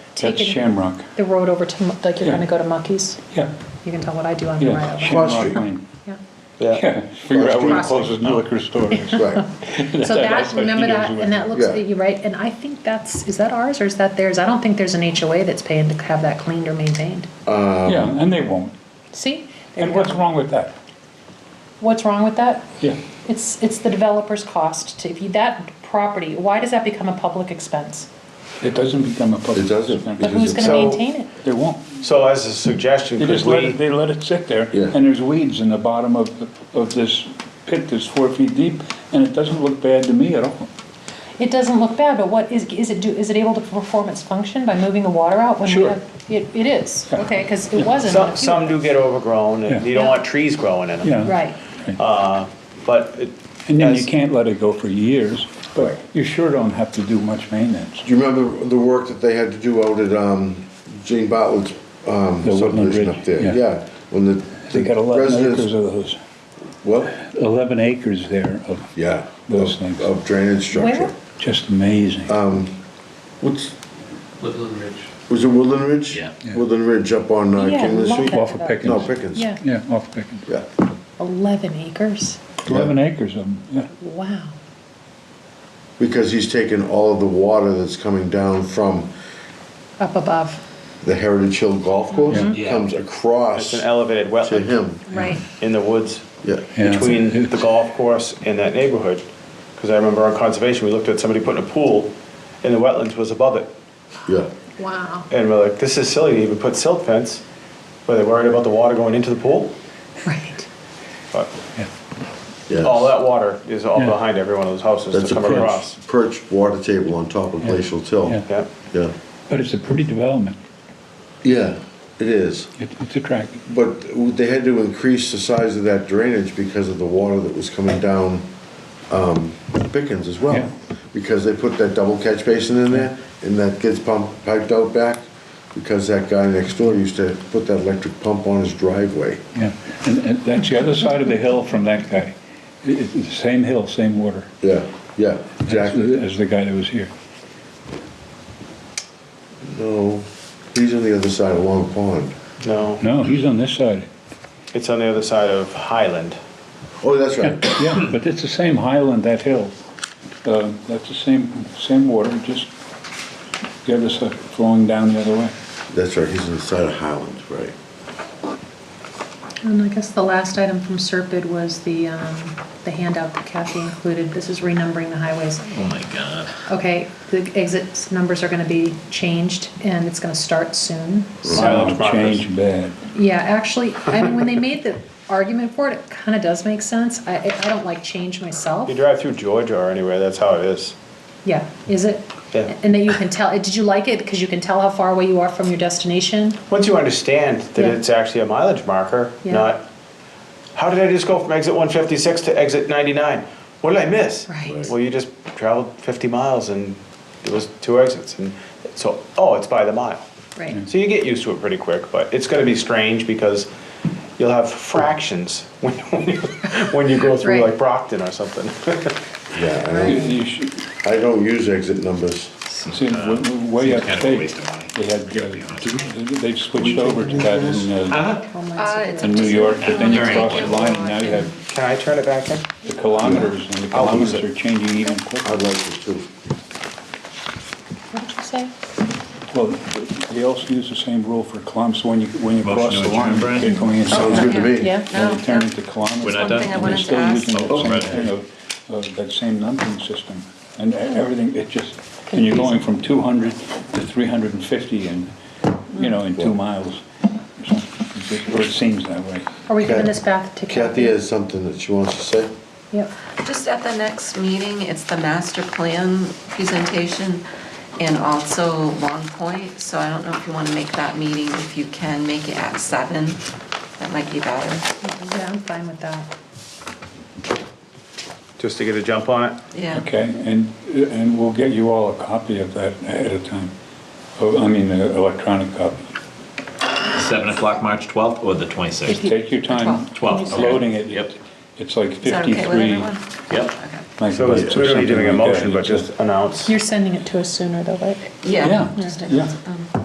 That's taken Shamrock. the road over to, Mu- like you're Yeah. going to go to Muckies. Yeah, You can tell what I do on the right yeah, of way. Cross Shamrock street. Lane. Yeah. Yeah, figure out where the Cross street. closest liquor store is. Right. So that, remember that, and that looks, Yeah. you're right, and I think that's, is that ours or is that theirs? I don't think there's an HOA that's paying to have that cleaned or maintained. Yeah, and they won't. See? There And you go. what's wrong with that? What's wrong with that? Yeah, It's, it's the developer's cost to, if you, that property, why does that become a public expense? it doesn't become a public. It doesn't. expense. But who's gonna So- maintain it? They won't. So as a suggestion, They could just let we, it, they let it sit there, Yeah. and there's weeds in the bottom of, the- of this pit that's four feet deep, and it doesn't look bad to me at all. It doesn't look bad, but what is, is it do, is it able to perform its function by moving the water out when we Sure. have? It, it is, okay, cause it wasn't. when a some, few- some do get overgrown, and Yeah. you don't want trees growing in them, Yeah. Right, but it. And then you as- can't let it go for years, but Right. you sure don't have to do much maintenance. Do you remember the work that they had to do out at um, Jane Bartlett's um, The Woodland subdivision Ridge, up there? yeah. Yeah, when the They got the eleven acres residents. of those, What? eleven acres there of, Yeah. Those of- things. Of drainage where? structure. just amazing. What's, Woodland Ridge. was it Woodland Ridge? Yeah. Yeah. Woodland Ridge up on uh, Yeah, Kingland love Street? that. Off of No, Pickens. Pickens. yeah, Yeah, off Pickens. Yeah. eleven acres, Eleven acres of them, yeah. wow. Because he's taken all of the water that's coming down from Up above, the Heritage Hill Golf Course, Mm-hmm. Yeah. comes It's across an to elevated wetland him. right. in the woods Yeah. Yeah. between the golf course and that neighborhood. Because I remember on conservation, we looked at somebody putting a pool, and the wetlands was above it. Yeah. Wow. And we're like, this is silly to even put silt fence, but they're worried about the water going into the pool. Right. But Yes. Oh, all that water is all Yeah. behind every one of those houses That's to a come across. perch, perch water table on top of Glacial Till. Yeah. Yeah, Yeah. But it's a pretty development. Yeah, it is. It- It's attractive. But they had to increase the size of that drainage because of the water that was coming down um, Pickens as Yeah. well. Because they put that double catch basin in there and that gets pumped, piped out back because that guy next door used to put that electric pump on his driveway. Yeah, and, and that's the other side of the hill from that guy. It- It's the same hill, same water. Yeah, yeah, exactly. As the guy that was here. No, he's on the other side of Long Pond. no, No, he's on this side. it's on the other side of Highland. Oh, that's right. Yeah, but it's the same highland, that hill. Uh, That's the same, same water, just the other side, flowing down the other way. That's right, he's on the side of Highland, right. And I guess the last item from Serpid was the, um, the handout that Kathy included. This is renumbering the highways. Oh my God. Okay, the exit numbers are gonna be changed and it's gonna start soon. So, Silent markers. Change bad. yeah, actually, I mean, when they made the argument for it, it kinda does make sense. I, I I don't like change myself. You drive through Georgia or anywhere, that's how it is. Yeah, is it? Yeah. And then you can tell, eh, did you like it? Because you can tell how far away you are from your destination? Once you understand that Yeah. it's actually a mileage marker, Yeah. not, how did I just go from exit 156 to exit 99? What did I miss? Right. Well, you just traveled 50 miles and it was two exits. And so, oh, it's by the mile. Right. So you get used to it pretty quick, but it's going to be strange because you'll have fractions when, when, you, when you go through Right. like Brockton or something. Yeah, I You- don't, you should- I don't use exit numbers. See, w- w- way Uh, up Seems kind of a state, waste of money, they had, to be uh, they've switched over to that in, uh, Uh, it's in New York, but then you Very cross the good. line and now you have Can I turn it back in? the kilometers and the I'll lose kilometers are changing even quicker. I'd like to too. What did you say? Well, they also use the same rule for kilometers when you, when you Motion cross to the adjourn, line. Brian? they're Oh, going in Sounds kilometers, good to me. Yeah, and they turn into kilometers. We're not done? Something I And wanted they're to still ask. using Oh, the right. same thing of, of uh, that same numbering system and e- everything, it just, and you're going from two hundred to three hundred and fifty in, you know, in two miles. or something. Or it seems that way. Are we giving Kathy- this back to Kathy Kathy? has something that she wants to say. Yep. Just at the next meeting, it's the master plan presentation and also Long Point, so I don't know if you want to make that meeting, if you can make it at seven, that might be better, Yeah, I'm fine with that. Just to get a jump on it? yeah. Okay, and, and we'll get you all a copy of that ahead of time. Oh, I mean, an electronic copy. Seven o'clock, March twelfth or the Just twenty-sixth? take your time. Twelve. Twelve, okay. Loading it. Yep. It's like Is that okay with 53. everyone? Yep. Okay. like So bucks it's or literally something doing a like that. motion, but It's a- just announce. You're sending it to us sooner though, right? Yeah. Yeah, just a- yeah. um,